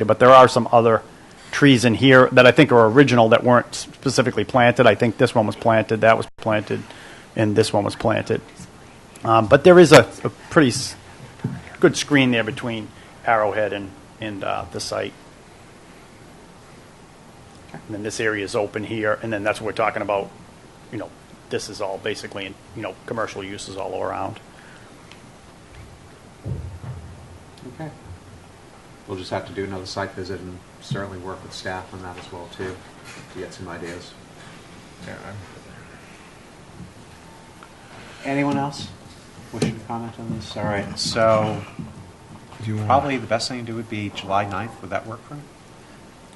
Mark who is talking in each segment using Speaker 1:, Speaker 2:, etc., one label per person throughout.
Speaker 1: Yeah, But there are some other trees in here that I think are original that weren't specifically planted. I think this one was planted, that was planted, and this one was planted. Um, But there is a a pretty s- good screen there between Arrowhead and, and uh, the site. And then this area is open here, and then that's what we're talking about, you know, this is all basically, you know, commercial uses all around.
Speaker 2: Okay. We'll just have to do another site visit and certainly work with staff on that as well, too, to get some ideas. Anyone else wishing to comment on this? All right, so probably the best thing to do would be July 9th. Would that work for you?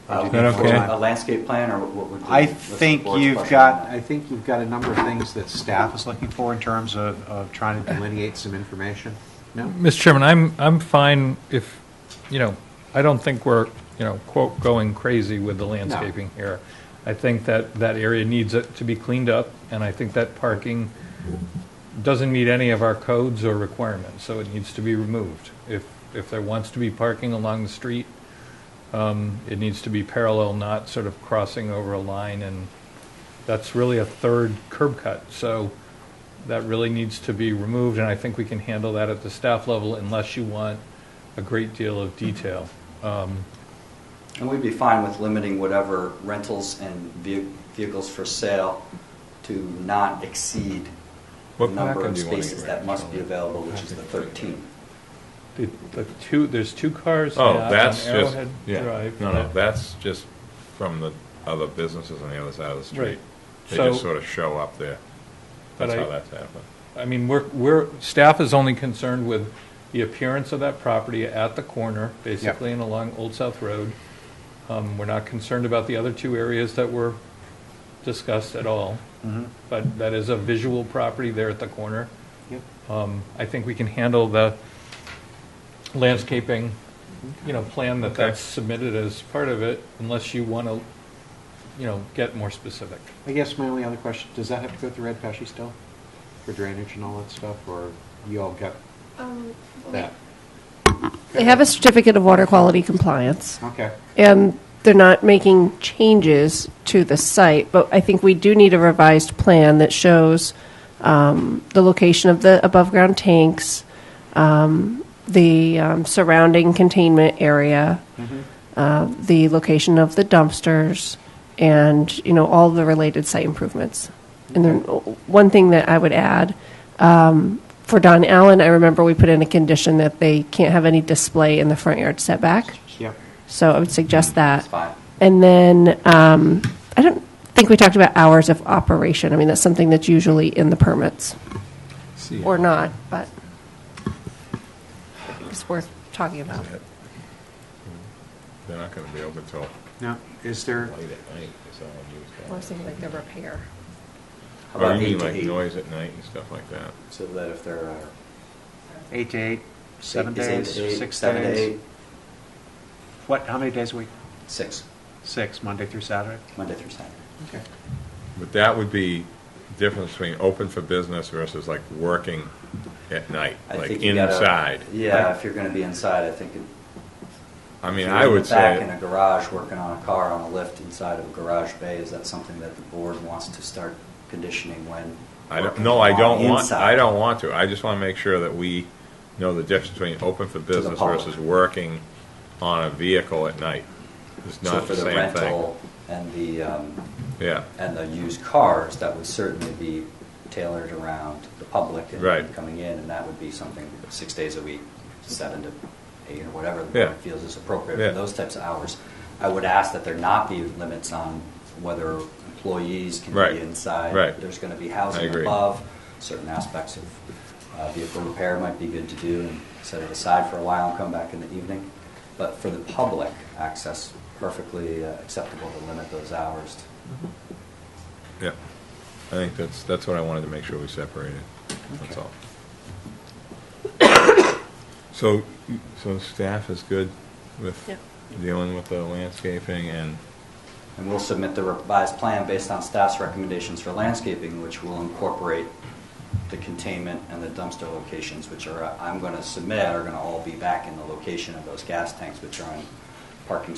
Speaker 2: Or do you
Speaker 3: Is that
Speaker 2: need more
Speaker 3: okay?
Speaker 2: time?
Speaker 4: A landscape plan or what would?
Speaker 2: I
Speaker 4: what's the
Speaker 2: think
Speaker 4: board's
Speaker 2: you've
Speaker 4: pleasure?
Speaker 2: got, I think you've got a number of things that staff is looking for in terms of, of trying to delineate some information. No?
Speaker 3: Mr. Chairman, I'm, I'm fine if, you know, I don't think we're, you know, quote, going crazy with the landscaping here. I think that that area needs it to be cleaned up, and I think that parking doesn't meet any of our codes or requirements, so it needs to be removed. If, if there wants to be parking along the street, um, it needs to be parallel, not sort of crossing over a line, and that's really a third curb cut. So that really needs to be removed, and I think we can handle that at the staff level unless you want a great deal of detail.
Speaker 4: And we'd be fine with limiting whatever rentals and vehi- vehicles for sale to not exceed the
Speaker 5: What
Speaker 4: number
Speaker 5: pattern
Speaker 4: of
Speaker 5: do you wanna
Speaker 4: spaces
Speaker 5: get rid
Speaker 4: that
Speaker 5: of?
Speaker 4: must be available, which is the 13.
Speaker 3: The the two, there's two cars
Speaker 5: Oh,
Speaker 3: now on
Speaker 5: that's just,
Speaker 3: Arrowhead
Speaker 5: yeah,
Speaker 3: Drive.
Speaker 5: no, no, that's just from the other businesses on the other side of the
Speaker 3: Right.
Speaker 5: street. They just
Speaker 3: So-
Speaker 5: sort of show up there.
Speaker 3: But
Speaker 5: That's
Speaker 3: I-
Speaker 5: how that's happened.
Speaker 3: I mean, we're, we're, staff is only concerned with the appearance of that property at the corner, basically, and along Old South Road. Um, We're not concerned about the other two areas that were discussed at all. But that is a visual property there at the corner.
Speaker 2: Yep.
Speaker 3: Um, I think we can handle the landscaping, you know, plan that that's submitted as part of it, unless you want to, you know, get more specific.
Speaker 2: I guess my only other question, does that have to go through Red Pesci still? For drainage and all that stuff, or you all got
Speaker 6: Um,
Speaker 2: that?
Speaker 6: They have a certificate of water quality compliance,
Speaker 2: Okay,
Speaker 6: and they're not making changes to the site, but I think we do need a revised plan that shows um, the location of the above-ground tanks, um, the um, surrounding containment area, uh, the location of the dumpsters, and, you know, all the related site improvements. And then, uh, one thing that I would add, um, for Don Allen, I remember we put in a condition that they can't have any display in the front yard setback.
Speaker 2: yep.
Speaker 6: So I would suggest that.
Speaker 4: That's fine.
Speaker 6: And then, um, I don't think we talked about hours of operation. I mean, that's something that's usually in the permits, or not, but it's worth talking about.
Speaker 5: They're not gonna be open till late
Speaker 2: Now, is there,
Speaker 5: at night, is all you
Speaker 6: I was thinking like the repair.
Speaker 4: How
Speaker 5: Or
Speaker 4: about
Speaker 5: you
Speaker 4: eight
Speaker 5: mean
Speaker 4: to
Speaker 5: like
Speaker 4: eight?
Speaker 5: noise at night and stuff like that?
Speaker 4: So that if there are.
Speaker 2: eight to eight, seven
Speaker 4: is eight
Speaker 2: days,
Speaker 4: to eight,
Speaker 2: six
Speaker 4: Seven to
Speaker 2: days?
Speaker 4: eight,
Speaker 2: What, how many days a week?
Speaker 4: six,
Speaker 2: Six, Monday through Saturday?
Speaker 4: Monday through Saturday.
Speaker 2: Okay.
Speaker 5: But that would be difference between open for business versus like working at night,
Speaker 4: I
Speaker 5: like
Speaker 4: think you gotta-
Speaker 5: inside.
Speaker 4: Yeah, if you're going to be inside, I think. it-
Speaker 5: I
Speaker 4: if
Speaker 5: mean,
Speaker 4: you're
Speaker 5: I
Speaker 4: in the
Speaker 5: would
Speaker 4: Back in a
Speaker 5: say,
Speaker 4: garage, working on a car on a lift inside of a garage bay, is that something that the board wants to start conditioning when?
Speaker 5: I don't,
Speaker 4: working
Speaker 5: no, I
Speaker 4: on
Speaker 5: don't want,
Speaker 4: inside?
Speaker 5: I don't want to. I just wanna make sure that we know the difference between open for business
Speaker 4: public.
Speaker 5: versus working on a vehicle at night. It's
Speaker 4: So
Speaker 5: not
Speaker 4: for
Speaker 5: the
Speaker 4: the
Speaker 5: same thing.
Speaker 4: rental and the, um,
Speaker 5: Yeah,
Speaker 4: and the used cars, that would certainly be tailored around the public
Speaker 5: Right.
Speaker 4: and coming in, and that would be something, six days a week, seven to eight, or whatever the
Speaker 5: Yeah.
Speaker 4: board feels is appropriate
Speaker 5: Yeah.
Speaker 4: for those types of hours. I would ask that there not be limits on whether employees can
Speaker 5: Right.
Speaker 4: be inside.
Speaker 5: Right.
Speaker 4: There's going to be
Speaker 5: I
Speaker 4: housing
Speaker 5: agree.
Speaker 4: above, certain aspects of uh, vehicle repair might be good to do, and set it aside for a while and come back in the evening. But for the public access, perfectly uh, acceptable to limit those hours to
Speaker 5: yeah. I think that's, that's what I wanted to make sure we separated, that's
Speaker 2: Okay.
Speaker 5: all. So, so staff is good with
Speaker 6: Yeah.
Speaker 5: dealing with the landscaping and
Speaker 4: And we'll submit the revised plan based on staff's recommendations for landscaping, which will incorporate the containment and the dumpster uh, locations, which are, I'm going to submit, are going to all be back in the location of those gas tanks, which are on parking